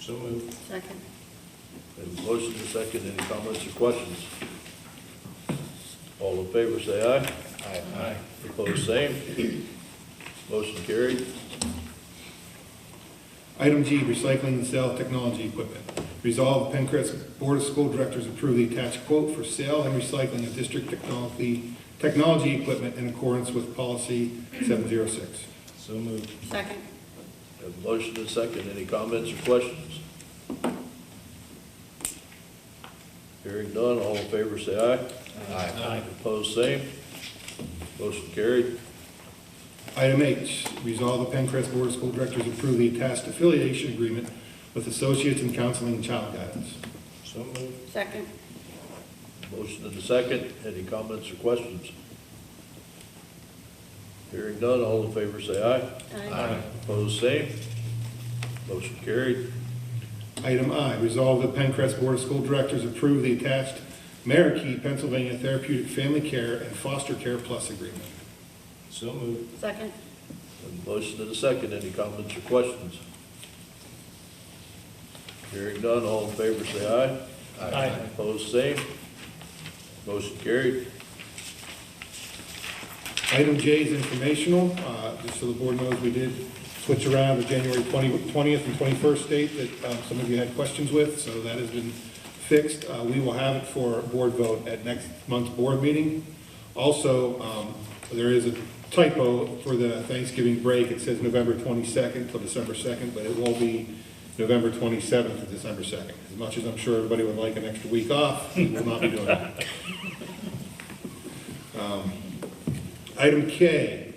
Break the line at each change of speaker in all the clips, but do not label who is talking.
So moved.
Second.
There's a motion to second, any comments or questions? All in favor, say aye.
Aye.
Opposed, same. Motion carried.
Item G, recycling and sale of technology equipment. Resolve, the Pencrest Board of School Directors approve the attached quote for sale and recycling of district technology, technology equipment in accordance with policy 706.
So moved.
Second.
There's a motion to second, any comments or questions? Hearing none, all in favor, say aye.
Aye.
Opposed, same. Motion carried.
Item H, resolve the Pencrest Board of School Directors approve the attached affiliation agreement with Associates in Counseling and Child Guidance.
So moved.
Second.
Motion and a second, any comments or questions? Hearing none, all in favor say aye. Opposed, same. Motion carried.
Item I, resolve the Pencrest Board of School Directors approve the attached Marikey, Pennsylvania Therapeutic Family Care and Foster Care Plus Agreement.
So moved.
Second.
And Motion and a second, any comments or questions? Hearing none, all in favor say aye.
Aye.
Opposed, same. Motion carried.
Item J is informational, uh, just so the board knows, we did switch around the January 20 twentieth and twenty-first date that, um, some of you had questions with, so that has been fixed. Uh, we will have it for a board vote at next month's board meeting. Also, um, there is a typo for the Thanksgiving break, it says November twenty-second till December second, but it will be November twenty-seventh to December second. As much as I'm sure everybody would like an extra week off, we will not be doing that. Item K,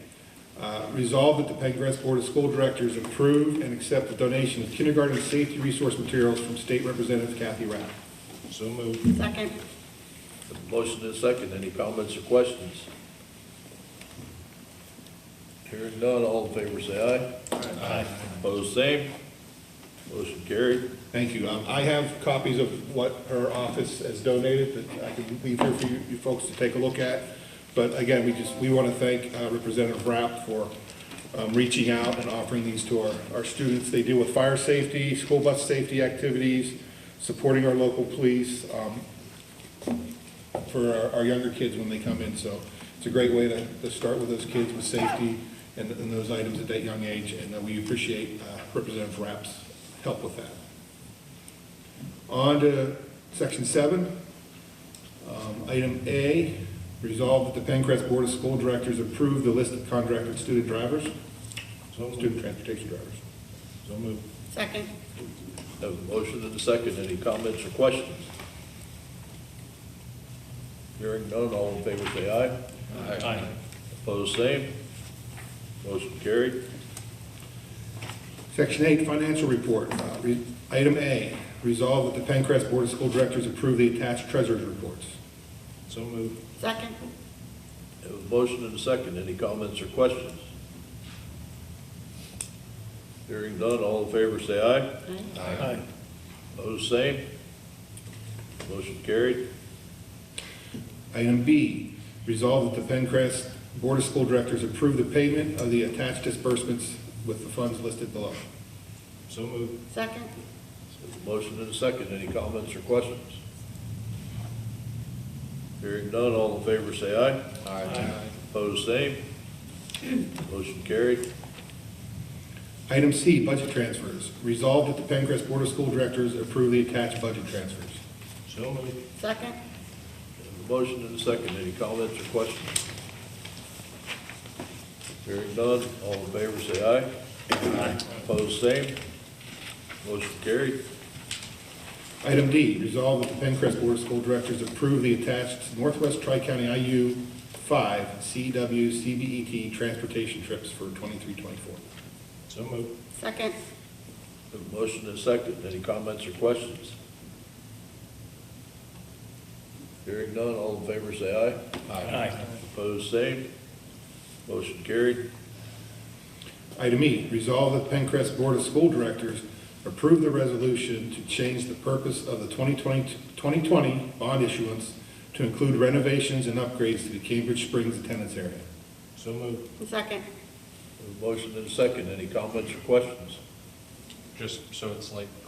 uh, resolve that the Pendergrass Board of School Directors approve and accept the donation of kindergarten safety resource materials from State Representative Kathy Rapp.
So moved.
Second.
And Motion and a second, any comments or questions? Hearing none, all in favor say aye.
Aye.
Opposed, same. Motion carried.
Thank you. Um, I have copies of what her office has donated that I can leave here for you you folks to take a look at. But again, we just, we want to thank uh, Representative Rapp for um, reaching out and offering these to our, our students. They deal with fire safety, school bus safety activities, supporting our local police, um, for our, our younger kids when they come in. So it's a great way to, to start with those kids with safety and, and those items at that young age. And uh, we appreciate uh, Representative Rapp's help with that. On to section seven. Um, Item A, resolve that the Pencrest Board of School Directors approve the list of contracted student drivers,
So moved.
student transportation drivers.
So moved.
Second.
Have a motion and a second, any comments or questions? Hearing none, all in favor say aye.
Aye.
Opposed, same. Motion carried.
Section eight, financial report. Uh, re- Item A, resolve that the Pencrest Board of School Directors approve the attached treasurer's reports.
So moved.
Second.
Have a motion and a second, any comments or questions? Hearing none, all in favor say aye.
Aye.
Aye.
Opposed, same. Motion carried.
Item B, resolve that the Pencrest Board of School Directors approve the payment of the attached disbursements with the funds listed below.
So moved.
Second.
Have a Motion and a second, any comments or questions? Hearing none, all in favor say aye. Opposed, same. Motion carried.
Item C, budget transfers. Resolved that the Pencrest Board of School Directors approve the attached budget transfers.
So moved.
Second.
Have a Motion and a second, any comments or questions? Hearing none, all in favor say aye. Aye. Opposed, same. Motion carried.
Item D, resolve that the Pencrest Board of School Directors approve the attached Northwest Tri-County IU five CW CBET E transportation trips for twenty-three, twenty-four.
So moved.
Second.
Have a Motion and a second, any comments or questions? Hearing none, all in favor say aye.
Aye.
Opposed, same. Motion carried.
Item E, resolve that the Pencrest Board of School Directors approve the resolution to change the purpose of the 2020 2020 bond issuance to include renovations and upgrades to the Cambridge Springs attendance area.
So moved.
Second.
Have a Motion and a second, any comments or questions?
just so it's like